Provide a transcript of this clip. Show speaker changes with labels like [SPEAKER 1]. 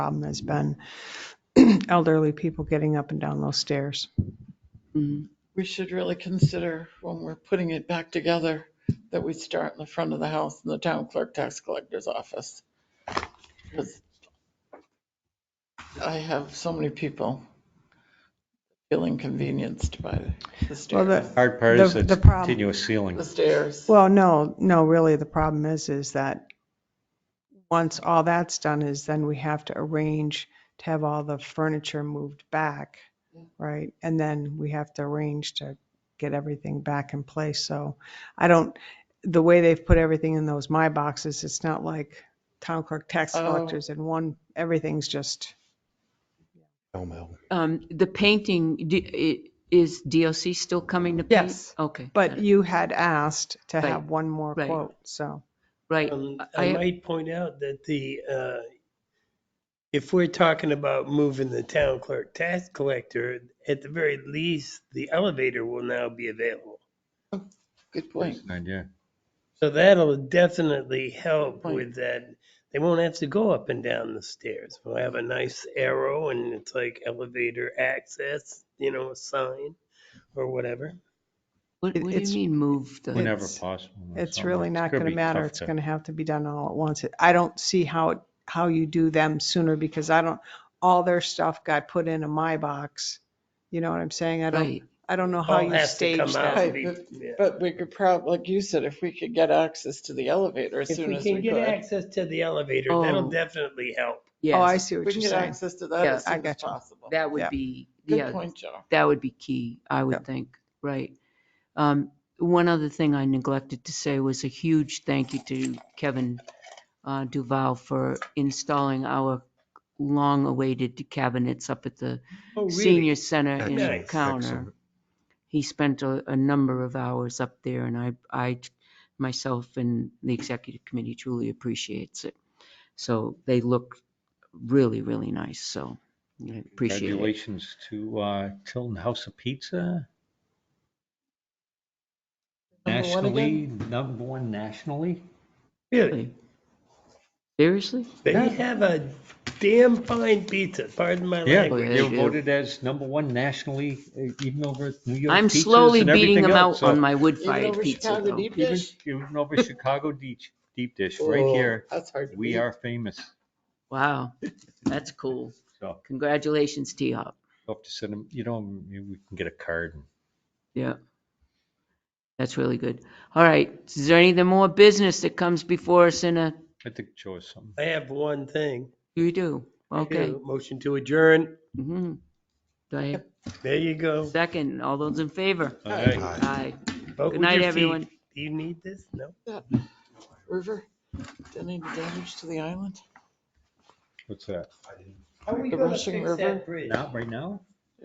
[SPEAKER 1] problem has been elderly people getting up and down those stairs.
[SPEAKER 2] Mm-hmm.
[SPEAKER 3] we should really consider when we're putting it back together, that we start in the front of the house in the town clerk tax collector's office. 'Cause I have so many people feel inconvenienced by the
[SPEAKER 1] Well,
[SPEAKER 3] stairs.
[SPEAKER 1] the,
[SPEAKER 4] Hard part
[SPEAKER 1] The-
[SPEAKER 4] is it's
[SPEAKER 1] the problem-
[SPEAKER 4] continuous ceiling.
[SPEAKER 3] The stairs.
[SPEAKER 1] well, no, no, really, the problem is, is that once all that's done is then we have to arrange to have all the furniture moved back, right? And then we have to arrange to get everything back in place. So I don't, the way they've put everything in those my boxes, it's not like town clerk tax
[SPEAKER 3] Oh.
[SPEAKER 1] collectors and one, everything's just,
[SPEAKER 2] Um, the painting, do- i- is DOC still coming to paint?
[SPEAKER 1] Yes.
[SPEAKER 2] Okay.
[SPEAKER 1] but
[SPEAKER 2] got it.
[SPEAKER 1] you had asked to
[SPEAKER 2] Right,
[SPEAKER 1] have one more
[SPEAKER 2] right.
[SPEAKER 1] quote, so.
[SPEAKER 2] Right,
[SPEAKER 5] Um,
[SPEAKER 2] I-
[SPEAKER 5] I might point out that the, uh, if we're talking about moving the town clerk tax collector, at the very least, the elevator will now be available.
[SPEAKER 3] Good point.
[SPEAKER 4] Yeah.
[SPEAKER 5] So that'll definitely help
[SPEAKER 3] Point.
[SPEAKER 5] with that. They won't have to go up and down the stairs. We'll have a nice arrow and it's like elevator access, you know, a sign or whatever.
[SPEAKER 2] what,
[SPEAKER 1] It-
[SPEAKER 2] what do
[SPEAKER 1] it's-
[SPEAKER 2] you mean move the?
[SPEAKER 4] Whenever
[SPEAKER 1] It's-
[SPEAKER 4] possible.
[SPEAKER 1] It's
[SPEAKER 4] Something.
[SPEAKER 1] really not
[SPEAKER 4] gonna
[SPEAKER 1] going to
[SPEAKER 4] be
[SPEAKER 1] matter.
[SPEAKER 4] tough
[SPEAKER 1] It's going to have to be done all at once. It- I don't see how, it- how you do them sooner because I don't, all their stuff got put into my box. You know what I'm saying? I don't,
[SPEAKER 2] Right.
[SPEAKER 1] I don't know how
[SPEAKER 5] All
[SPEAKER 1] you
[SPEAKER 5] has to
[SPEAKER 1] stage
[SPEAKER 5] come out
[SPEAKER 1] that.
[SPEAKER 3] that.
[SPEAKER 5] and be-
[SPEAKER 3] Right,
[SPEAKER 5] yeah.
[SPEAKER 3] But we could prob, like you said, if we could get access to the elevator as
[SPEAKER 5] If
[SPEAKER 3] soon
[SPEAKER 5] we
[SPEAKER 3] as
[SPEAKER 5] can
[SPEAKER 3] we
[SPEAKER 5] get
[SPEAKER 3] could.
[SPEAKER 5] access to the elevator, that'll
[SPEAKER 2] Oh.
[SPEAKER 5] definitely help.
[SPEAKER 1] Oh, I
[SPEAKER 2] Yes,
[SPEAKER 1] see
[SPEAKER 3] We
[SPEAKER 1] what
[SPEAKER 3] can
[SPEAKER 1] you're
[SPEAKER 3] get
[SPEAKER 1] saying.
[SPEAKER 3] access to that
[SPEAKER 2] Yeah,
[SPEAKER 3] as
[SPEAKER 1] I
[SPEAKER 3] soon as
[SPEAKER 1] gotcha.
[SPEAKER 3] possible.
[SPEAKER 2] that
[SPEAKER 1] yeah.
[SPEAKER 2] would be,
[SPEAKER 3] Good
[SPEAKER 2] yeah,
[SPEAKER 3] point, Joe.
[SPEAKER 2] that would be key, I
[SPEAKER 1] Yeah.
[SPEAKER 2] would think, right. Um, one other thing I neglected to say was a huge thank you to Kevin uh, Duval for installing our long-awaited cabinets up at the
[SPEAKER 5] Oh,
[SPEAKER 2] senior center in
[SPEAKER 5] Excellent.
[SPEAKER 2] Counter. he spent a, a number of hours up there and I, I myself and the executive committee truly appreciates it. So they look really, really nice. So I appreciate it.
[SPEAKER 4] Congratulations to uh, Tilton House of Pizza.
[SPEAKER 3] Number one
[SPEAKER 4] Nationally, number one nationally.
[SPEAKER 5] Really?
[SPEAKER 2] Seriously?
[SPEAKER 5] They have a damn fine pizza, pardon my
[SPEAKER 4] Yeah,
[SPEAKER 2] Oh,
[SPEAKER 5] language.
[SPEAKER 2] yeah,
[SPEAKER 4] they were
[SPEAKER 2] they do.
[SPEAKER 4] voted as number one nationally, uh, even over New York.
[SPEAKER 2] I'm
[SPEAKER 4] pizzas
[SPEAKER 2] slowly
[SPEAKER 4] and
[SPEAKER 2] beating
[SPEAKER 4] everything
[SPEAKER 2] them
[SPEAKER 4] else,
[SPEAKER 2] out on
[SPEAKER 4] so-
[SPEAKER 2] my
[SPEAKER 3] Even
[SPEAKER 2] wood-fired
[SPEAKER 3] over
[SPEAKER 2] pizza
[SPEAKER 3] Chicago
[SPEAKER 2] though.
[SPEAKER 3] deep
[SPEAKER 4] Even
[SPEAKER 3] dish?
[SPEAKER 4] even over Chicago deep, deep dish, right
[SPEAKER 3] Oh,
[SPEAKER 4] here,
[SPEAKER 3] That's hard to
[SPEAKER 4] we
[SPEAKER 3] beat.
[SPEAKER 4] are famous.
[SPEAKER 2] Wow, that's cool.
[SPEAKER 4] So
[SPEAKER 2] Congratulations, T-Hop.
[SPEAKER 4] we'll have to send them, you know, maybe we can get a card and
[SPEAKER 2] Yeah. That's really good. All right. Is there any more business that comes before us in a,
[SPEAKER 4] I think Joe has something.
[SPEAKER 5] I have one thing.
[SPEAKER 2] you do? Okay.
[SPEAKER 5] Motion to adjourn.
[SPEAKER 2] Mhm. Do I have
[SPEAKER 5] There you
[SPEAKER 2] a
[SPEAKER 5] go.
[SPEAKER 2] second? All those in favor?
[SPEAKER 4] All right.
[SPEAKER 2] Aye.
[SPEAKER 5] Vote
[SPEAKER 2] Good
[SPEAKER 5] with
[SPEAKER 2] night,
[SPEAKER 5] your feet.
[SPEAKER 2] everyone.
[SPEAKER 5] Do you need this? No?
[SPEAKER 3] River, did any damage to the island?
[SPEAKER 4] What's that?
[SPEAKER 5] Are we
[SPEAKER 3] The gonna rushing fix that river?
[SPEAKER 5] bridge?
[SPEAKER 4] Not right now?